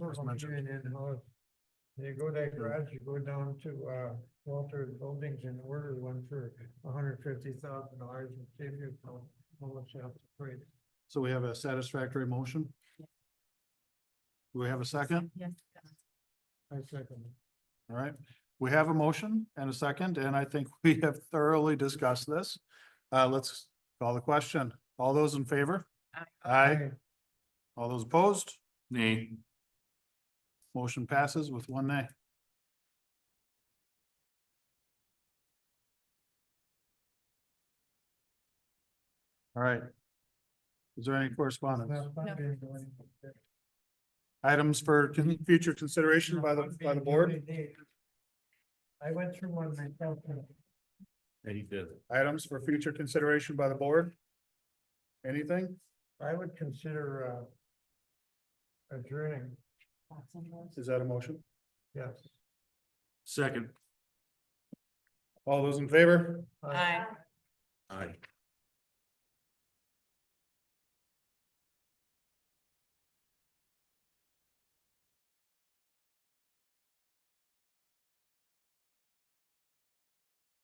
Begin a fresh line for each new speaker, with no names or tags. was mentioned.
And how you go that garage, you go down to uh Walter Buildings and order one for hundred fifty thousand dollars and save you from almost half the price.
So we have a satisfactory motion? Do we have a second?
Yes.
I second. it.
All right, we have a motion and a second, and I think we have thoroughly discussed this. Uh, let's call the question. All those in favor?
Aye.
Aye. All those opposed?
Nay.
Motion passes with one nay. All right. Is there any correspondence?
Not fun being the one-
Items for con- future consideration by the,
Not fun
by the
being
board?
only neighbor. I went through one myself. and
Eighty fifth.
Items for future consideration by the board? Anything?
I would consider uh adjourning,
Is that a motion?
yes.
Second.
All those in favor?
Uh,
Aye.
Aye.